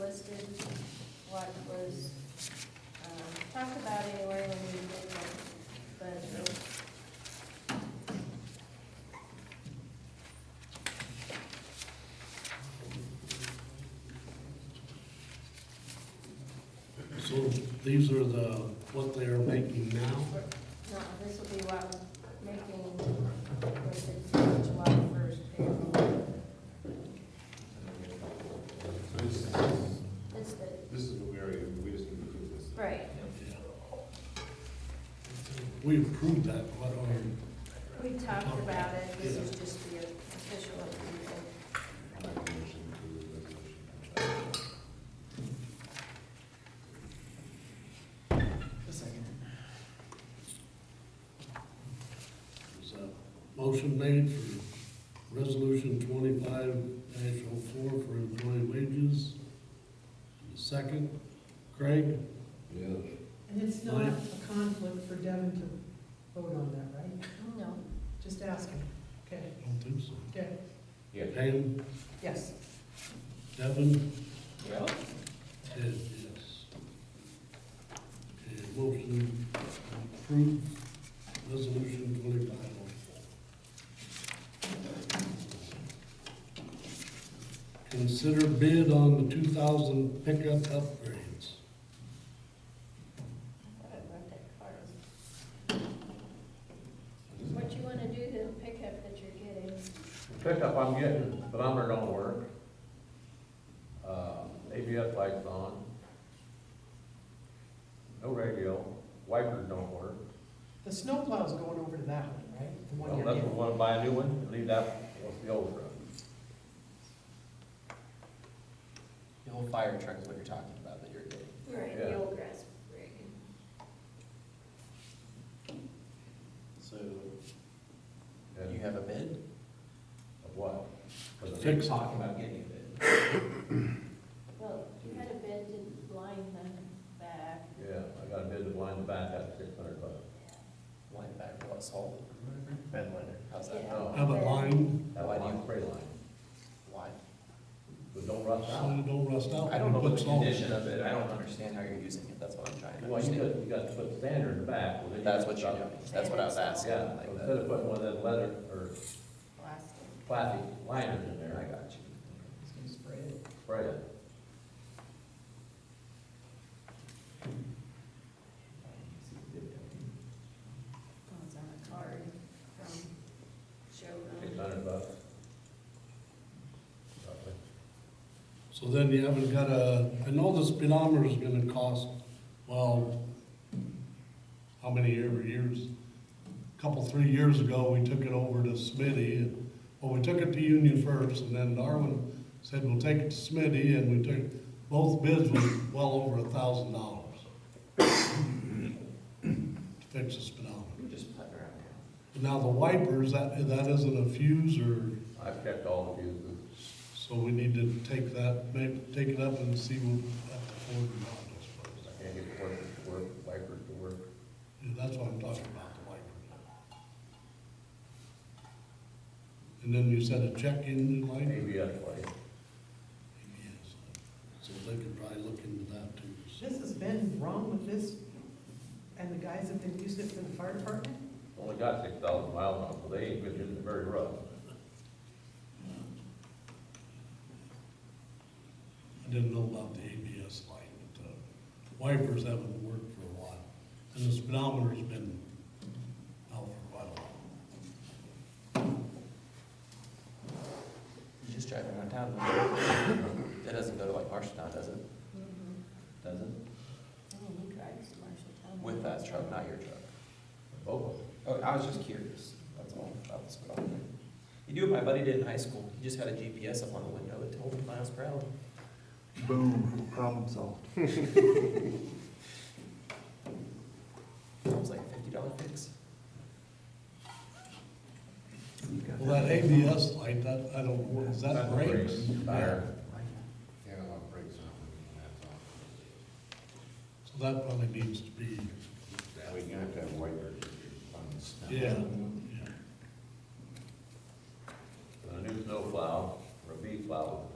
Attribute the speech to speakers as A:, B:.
A: listed what was, um, talked about anyway when we did that, but it
B: So these are the, what they are making now?
A: No, this will be what making, with the July first payroll.
C: This,
A: It's the,
C: this is what we already, we just need to approve this.
A: right,
B: We approved that, what are,
A: we talked about it, this is just the official approval.
C: I make a motion to approve the resolution.
B: is a motion made for resolution twenty-five dash oh four for employee wages? Second, Craig?
C: Yeah.
D: And it's not a conflict for Devin to vote on that, right?
A: No,
D: Just ask him. Okay,
B: I don't think so.
D: okay,
C: Yeah.
B: Pam,
D: yes.
B: Devin,
C: Well.
B: Ted, yes. Okay, motion approved, resolution twenty-five oh four. Consider bid on the two thousand pickup upgrades.
A: I thought I wrote that card. What you wanna do to pick up that you're getting?
E: Pickup I'm getting, but I'm don't work. Uh, ABS lights on. No radio, wipers don't work.
D: The snowplow's going over to that one, right? The one
E: Well,
D: you're
E: unless we
D: in.
E: wanna buy a new one, leave that, what's the old one?
F: The old fire truck is what you're talking about that you're getting.
A: Right,
E: Yeah.
A: the old grass rig.
F: So you
E: And
F: have a bid?
E: of what? For the-
B: Fix.
F: Talking about getting a bid.
A: Well, you had a bid to line them back.
E: Yeah, I got a bid to blind the back at six hundred bucks.
F: Line back for what's sold. Bed liner. How's that?
A: Yeah.
B: Have a line,
E: That
F: Why do
E: line,
F: you-
E: spray line,
F: Why?
E: but don't rust
B: so
E: out.
B: it don't rust out.
F: I don't know
B: Put
F: the
B: salt.
F: condition of it. I don't understand how you're using it. That's what I'm trying to
E: Well, you
F: understand.
E: got, you got to put standard in the back. well, then you
F: That's
E: got
F: what you're
E: stuff.
F: doing. That's what I was asking.
E: Yeah,
F: like
E: instead
F: that.
E: of putting one of that leather or
A: Plastic.
E: plastic liners in there,
F: I
E: I got
F: got you. It's gonna spray it.
E: spray it.
A: Oh, It's on a card from
E: Six
A: showroom.
E: hundred bucks. Roughly.
B: So then you haven't got a, I know the speedometer is gonna cost, well, how many ever years? Couple, three years ago, we took it over to Smitty, and, well, we took it to Union first, and then Darwin said, we'll take it to Smitty, and we took, both bids was well over a thousand dollars. To fix the speedometer.
F: We're just putting around here.
B: Now, the wipers, that, that isn't a fuse or,
E: I've checked all the fuses.
B: so we need to take that, maybe, take it up and see what, at the Ford and all those places.
E: I can't get the wipers to work, wipers to work.
B: Yeah, that's what I'm talking about, the wipers. And then you said a check-in light?
E: ABS light.
B: Yes. So they could probably look into that too. So
D: This has been wrong with this, and the guys have been using it for the fire department?
E: Only got six thousand miles on it, so they ain't been using it very rough.
B: I didn't know about the ABS light, but the wipers haven't worked for a while. And the speedometer's been out for quite a while.
F: You just drive around town. with it. It doesn't go to like Marshalltown, does it?
A: Mhm.
F: Does it?
A: Oh, he drives the Marshall Town.
F: With that truck, not your truck.
E: Both of them.
F: Oh, I was just curious, that's all, that was what I was. You do what my buddy did in high school, he just had a GPS up on the window that told him miles per hour.
G: Boom, problem solved.
F: It was like a fifty dollar fix.
B: Well, that ABS light, that, I don't, know, is that
E: That's
B: brakes?
E: Tire.
C: Yeah, a lot of breaks on it,
B: So that probably needs to be,
C: that's all. We can have to have wipers on the snow.
B: yeah.
E: And a new snow plow, or a V plow,